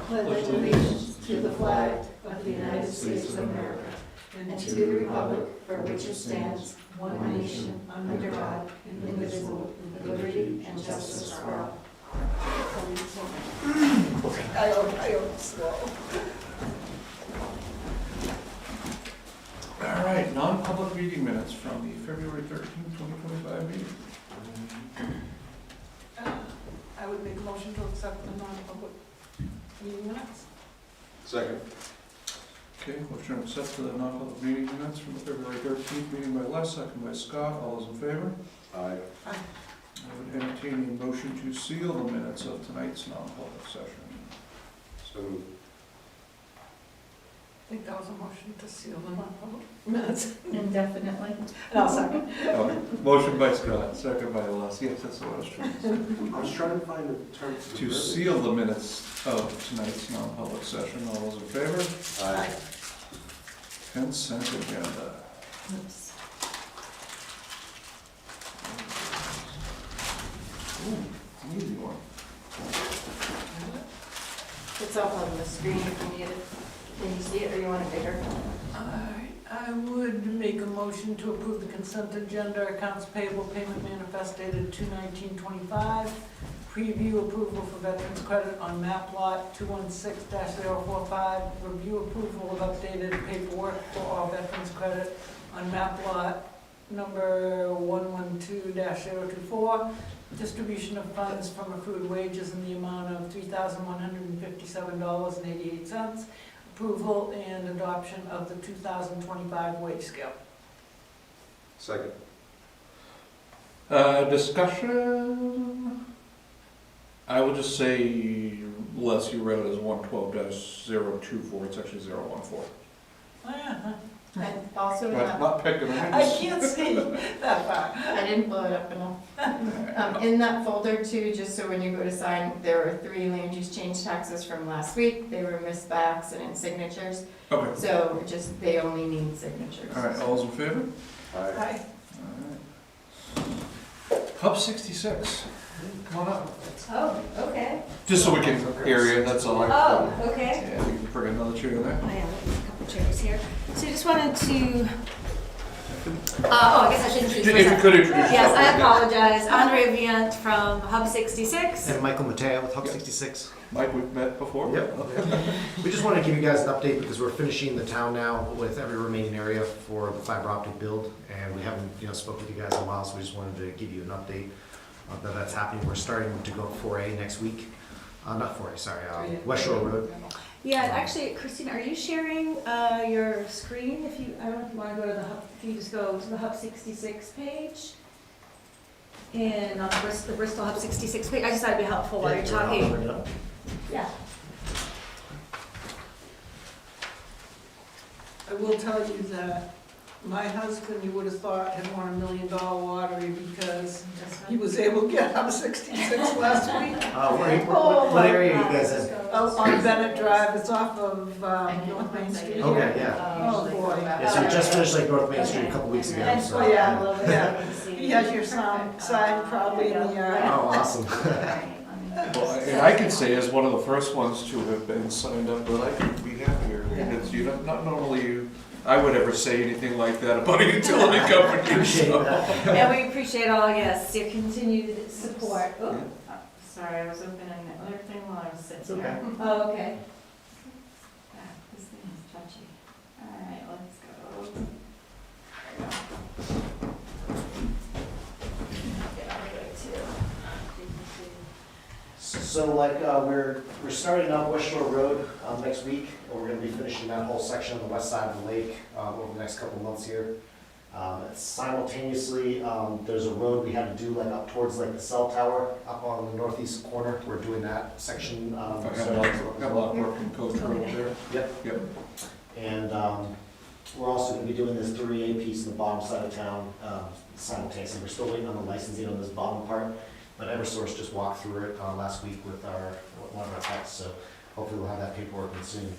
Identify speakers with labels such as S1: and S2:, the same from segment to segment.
S1: pledge allegiance to the flag of the United States of America and to the republic for which it stands, one nation, under God, indivisible, with liberty and justice for all.
S2: I hope, I hope so.
S3: All right, non-public meeting minutes from the February thirteenth, twenty twenty-five meeting.
S2: Um, I would make a motion to accept the non-public meeting minutes.
S4: Second.
S3: Okay, motion to accept the non-public meeting minutes from the February thirteenth meeting by Les, second by Scott, all those in favor?
S4: Aye.
S3: I would entertain a motion to seal the minutes of tonight's non-public session.
S4: So moved.
S2: I think that was a motion to seal the non-public minutes.
S1: Indefinitely.
S2: No, second.
S3: Oh, Motion by Scott, second by Les, yes, that's what I was trying to say.
S4: I was trying to find a term. for
S3: To
S4: verbiage.
S3: seal the minutes of tonight's non-public session, all those in favor?
S4: Aye.
S3: Consent agenda.
S1: Oops.
S3: Ooh, an easy one.
S1: It's up on the screen if you need it. Can you see it or you want it bigger?
S2: I, I would make a motion to approve the consent agenda, accounts payable payment manifest dated two nineteen twenty-five, preview approval for veterans credit on map lot two one six 45 review approval of updated paperwork for all veterans credit on map lot number one one two 24 distribution of funds from accrued wages in the amount of three thousand one hundred and fifty-seven dollars and eighty-eight cents, approval and adoption of the 2025 wage scale.
S4: Second.
S3: Uh, discussion? I will just say, Les, you wrote as one twelve dash zero two four, it's actually zero one four.
S2: Ah,
S1: And also,
S3: Right,
S1: um,
S3: not picking on
S2: I
S3: this.
S2: can't see that far.
S1: I didn't blow it up enough. Um, in that folder too, just so when you go to sign, there were three land use change taxes from last week. They were missed by accident signatures,
S3: Okay,
S1: so just, they only need signatures.
S3: all right, all those in favor?
S4: Aye.
S2: Hi.
S3: All right. Pub sixty-six, come on up,
S5: Oh, okay.
S3: just so we can hear you, that's all.
S5: Oh, okay. Oh,
S3: Yeah, you can bring another chair there.
S5: I am, a couple chairs here. So just wanted to, uh, oh, I guess I should
S3: If
S5: introduce
S3: you
S5: myself.
S3: could introduce yourself.
S5: Yes, I apologize. Andrea Viant from Hub 66.
S6: And Michael Matea with Hub
S3: Yep.
S6: 66.
S3: Mike, we've met before.
S6: Yep. We just wanted to give you guys an update because we're finishing the town now with every remaining area for the fiber optic build. And we haven't, you know, spoke with you guys in a while, so we just wanted to give you an update uh, that that's happening. We're starting to go 4A next week. Uh, not 4A, sorry, uh, West Shore Road.
S5: Yeah, and actually, Christine, are you sharing uh, your screen? If you, I don't know if you want to go to the Hub, if you just go to the Hub 66 page. And on Brist- the Bristol Hub 66 page, I just thought it'd be helpful while you're
S6: Yeah, I'll
S5: talking.
S6: bring it up.
S5: Yeah.
S2: I will tell you that my husband, you would have thought, had won a million dollar lottery because he was able to get out of 66 last week.
S6: Uh, where- where-
S5: Oh,
S6: What
S5: my
S6: area are
S5: God.
S6: you guys in?
S5: Uh,
S2: Out on Bennett Drive, it's off of um, North Main Street.
S6: Okay. yeah.
S1: uh,
S2: Oh, boy.
S6: Yeah, so we just finished like North Main Street a couple weeks ago.
S5: And
S6: so-
S2: Oh, yeah.
S5: a little bit.
S2: Yeah.
S5: You can see.
S2: He has your sign, sign probably in the,
S6: Oh,
S2: uh,
S6: awesome.
S3: Well, I- and I can say as one of the first ones to have been signed up, but I could be happier. It's, you don't, not normally you, I would ever say anything like that about a utility company.
S6: Appreciate
S3: so-
S6: that.
S5: And we appreciate all, yes, your continued support. Oh,
S1: Sorry, I was opening the other thing while I was sitting
S6: okay.
S1: here.
S5: oh, okay.
S1: Ah, This thing is touchy. All right, let's go. There we go.
S6: So like, uh, we're, we're starting on West Shore Road, um, next week, and we're gonna be finishing that whole section on the west side of the lake, um, over the next couple of months here. Um, simultaneously, um, there's a road we had to do like up towards like the cell tower, up on the northeast corner, we're doing that section, um.
S3: I've got a
S6: so-
S3: lot of- got a lot of work in Coast Road there.
S6: Yep.
S3: Yep.
S6: And um, we're also gonna be doing this three A piece in the bottom side of town um, simultaneously. We're still waiting on the licensing on this bottom part, but Eversource just walked through it uh, last week with our, one of our techs, so hopefully we'll have that paperwork in soon.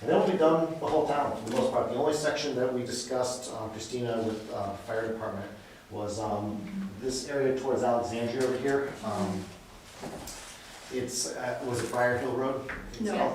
S6: And then we'll be done the whole town for the most part. The only section that we discussed, uh, Christina with uh, fire department, was um, this area towards Alexandria over here. Um, It's, uh, was it Briar Hill Road?
S1: No.